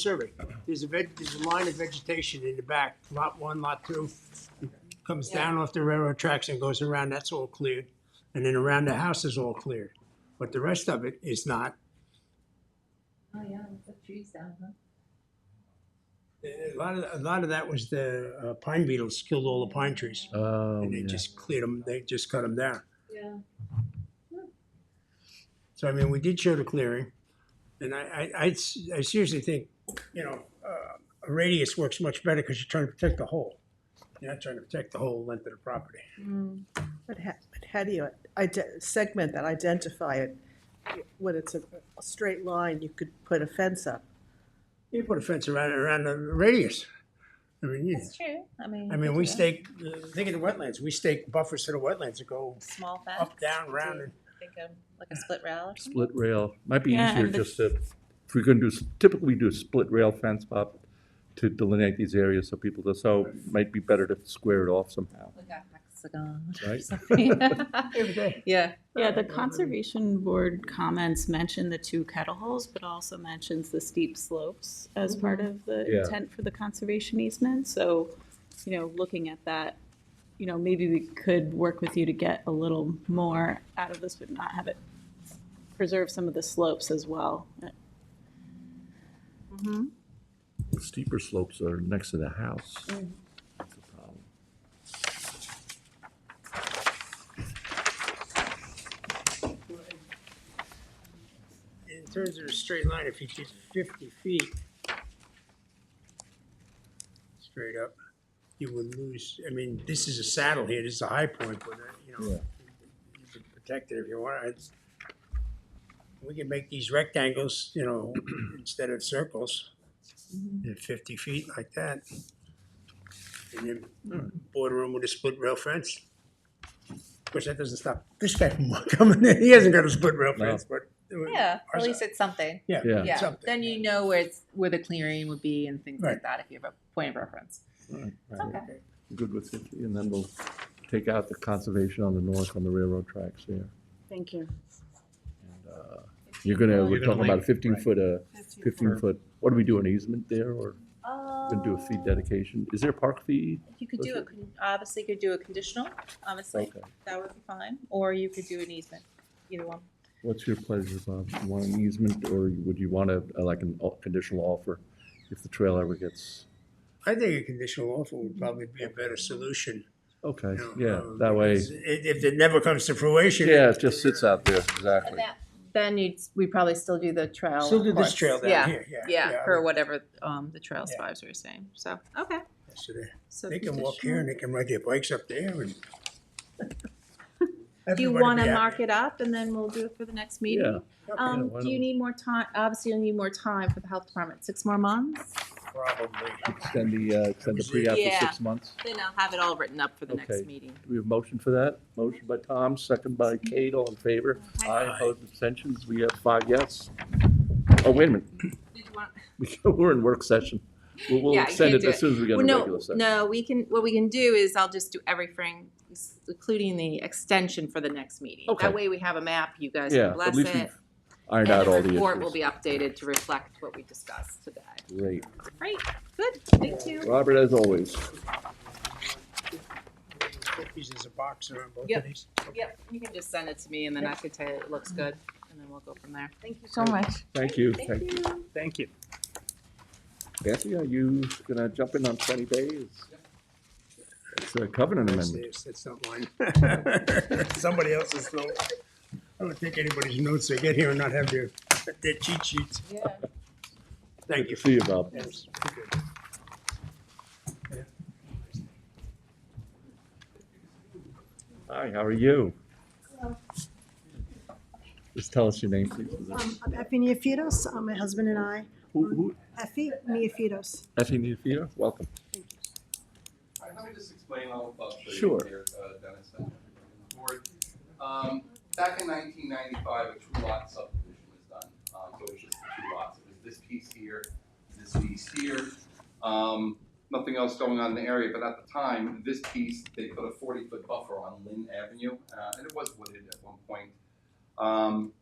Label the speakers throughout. Speaker 1: survey. There's a veg, there's a line of vegetation in the back, lot one, lot two. Comes down off the railroad tracks and goes around, that's all cleared. And then around the house is all cleared. But the rest of it is not.
Speaker 2: Oh, yeah, we put trees down, huh?
Speaker 1: A lot of, a lot of that was the uh, pine beetles killed all the pine trees.
Speaker 3: Oh,
Speaker 1: And they just cleared them, they just cut them down.
Speaker 2: Yeah.
Speaker 1: So I mean, we did show the clearing. And I, I, I s- I seriously think, you know, uh, a radius works much better because you're trying to protect the whole. You're not trying to protect the whole length of the property.
Speaker 4: Mm. But how, but how do you ide- segment that, identify it? When it's a, a straight line, you could put a fence up.
Speaker 1: You put a fence around around the radius. I mean, you,
Speaker 2: That's true. I mean. you
Speaker 1: I
Speaker 2: could
Speaker 1: mean,
Speaker 2: do
Speaker 1: we
Speaker 2: that.
Speaker 1: stake. uh, Think of the wetlands. We stake buffers to the wetlands that go
Speaker 2: Small fence.
Speaker 1: up, down, round, and
Speaker 2: Think of like a split rail or something.
Speaker 3: Split rail, might be
Speaker 5: Yeah,
Speaker 3: easier
Speaker 5: and the-
Speaker 3: just to, if we're gonna do, s- typically we do a split rail fence up to delineate these areas so people, do- so might be better to square it off somehow,
Speaker 2: Like a hexagon or
Speaker 3: Right.
Speaker 2: something.
Speaker 1: every day.
Speaker 2: Yeah.
Speaker 5: Yeah, the conservation board comments mention the two kettle holes, but also mentions the steep slopes as part
Speaker 2: Mm-hmm.
Speaker 5: of the
Speaker 3: Yeah.
Speaker 5: intent for the conservation easement, so, you know, looking at that, you know, maybe we could work with you to get a little more out of this, but not have it preserve some of the slopes as well.
Speaker 3: The steeper slopes are next to the house. That's the problem.
Speaker 1: In terms of a straight line, if you did fifty feet straight up, you would lose. I mean, this is a saddle here. This is a high point, but uh, you know, you can protect it if you want. It's, we can make these rectangles, you know, instead of circles, at fifty feet like that. And then border them with a split rail fence. Of course, that doesn't stop this guy from coming in. He hasn't got a split rail
Speaker 3: No.
Speaker 1: fence, but.
Speaker 2: Yeah, at
Speaker 1: Ours-
Speaker 2: least it's something.
Speaker 1: Yeah.
Speaker 3: Yeah.
Speaker 2: Yeah,
Speaker 1: something.
Speaker 2: then you know where it's, where the clearing would be and things
Speaker 1: Right.
Speaker 2: like that if you have a point of reference.
Speaker 3: Right,
Speaker 2: It's
Speaker 3: right.
Speaker 2: okay.
Speaker 3: Good with fifty, and then we'll take out the conservation on the north on the railroad tracks there.
Speaker 5: Thank you.
Speaker 3: And, uh, You're gonna,
Speaker 6: You're
Speaker 3: we're
Speaker 6: gonna
Speaker 3: talking about a
Speaker 6: leave-
Speaker 3: fifteen
Speaker 6: right.
Speaker 3: foot, uh, fifteen foot, what do we do, an easement there, or we gonna do a fee
Speaker 2: Uh,
Speaker 3: dedication? Is there a park fee?
Speaker 2: You could do a, con- obviously you could do a conditional, obviously,
Speaker 3: Okay.
Speaker 2: that would be fine, or you could do an easement, either one.
Speaker 3: What's your pleasure, Bob? You want an easement, or would you want a, a- like, a conditional offer if the trail ever gets,
Speaker 1: I think a conditional offer would probably be a better solution.
Speaker 3: okay,
Speaker 1: you know,
Speaker 3: yeah,
Speaker 1: uh,
Speaker 3: that way,
Speaker 1: because i- If it never comes to fruition.
Speaker 3: yeah, it just sits out there,
Speaker 2: And
Speaker 3: exactly.
Speaker 2: that, then you'd, we probably still do the trail.
Speaker 1: Still do this
Speaker 2: course.
Speaker 1: trail
Speaker 2: yeah.
Speaker 1: down here, yeah.
Speaker 2: Yeah,
Speaker 1: I
Speaker 2: for
Speaker 1: would-
Speaker 2: whatever um, the trail
Speaker 1: Yeah.
Speaker 2: spies were saying. So, okay.
Speaker 1: so they-
Speaker 2: So
Speaker 1: They can walk here and they can ride their bikes up there and.
Speaker 2: Do you want to mark it up and then we'll do it for the next meeting?
Speaker 3: Yeah,
Speaker 2: Um,
Speaker 3: why
Speaker 2: do you
Speaker 3: don't-
Speaker 2: need more time? Obviously, you'll need more time for the health department. Six more months?
Speaker 1: Probably.
Speaker 3: Extend the, uh, extend the pre-app
Speaker 2: Yeah.
Speaker 3: for six months.
Speaker 2: Then I'll have it all written up for the next
Speaker 3: Okay.
Speaker 2: meeting.
Speaker 3: Do we have a motion for that? Motion by Tom, second by Kate, all in favor?
Speaker 2: Okay.
Speaker 3: Aye, opposed, abstentions, we have five yes. Oh, wait a minute,
Speaker 2: Did you want-
Speaker 3: we're in work session. We'll, we'll
Speaker 2: Yeah, you
Speaker 3: extend
Speaker 2: can't
Speaker 3: it
Speaker 2: do
Speaker 3: as
Speaker 2: it.
Speaker 3: soon as we get
Speaker 2: Well,
Speaker 3: a
Speaker 2: no,
Speaker 3: regular session.
Speaker 2: no, we can, what we can do is I'll just do everything, including the extension for the next meeting.
Speaker 3: Okay.
Speaker 2: That way we have a map, you guys can
Speaker 3: Yeah, at
Speaker 2: bless
Speaker 3: least
Speaker 2: it.
Speaker 3: we've Ironed out all the
Speaker 2: And the
Speaker 3: issues.
Speaker 2: report will be updated to reflect what we discussed today.
Speaker 3: Great.
Speaker 2: Great, good, thank you.
Speaker 3: Robert, as always.
Speaker 1: These is a box around both of
Speaker 2: Yep.
Speaker 1: these.
Speaker 2: Yep, you can just send it to me and then I could tell you it looks good and then we'll go from there.
Speaker 4: Thank you
Speaker 2: so much.
Speaker 3: Thank you.
Speaker 2: Thank you.
Speaker 6: Thank you.
Speaker 3: Kathy, are you gonna jump in on twenty days? It's a covenant
Speaker 1: That's
Speaker 3: amendment.
Speaker 1: theirs, that's not mine. Somebody else's note. I don't take anybody's notes. They get here and not have their, their cheat sheets.
Speaker 2: Yeah.
Speaker 1: Thank you.
Speaker 3: See you, Bob.
Speaker 1: Yes, good.
Speaker 3: Hi, how are you? Just tell us your name, please.
Speaker 7: Um, I'm Effie Neofitos, uh, my husband and I.
Speaker 3: Who, who,
Speaker 7: Effie Neofitos.
Speaker 3: Effie Nufio, welcome.
Speaker 8: All right, Let me just explain all about the
Speaker 3: Sure.
Speaker 8: here, uh, Dennis and everybody on the board. Um, back in nineteen ninety-five, a two lot subdivision was done, um, so it was just the two lots, it was this piece here, this piece here. Um, nothing else going on in the area, but at the time, this piece, they put a forty-foot buffer on Lynn Avenue, uh, and it was wooded at one point. Um,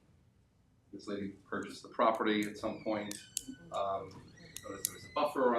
Speaker 8: this lady purchased the property at some point, um, but buffer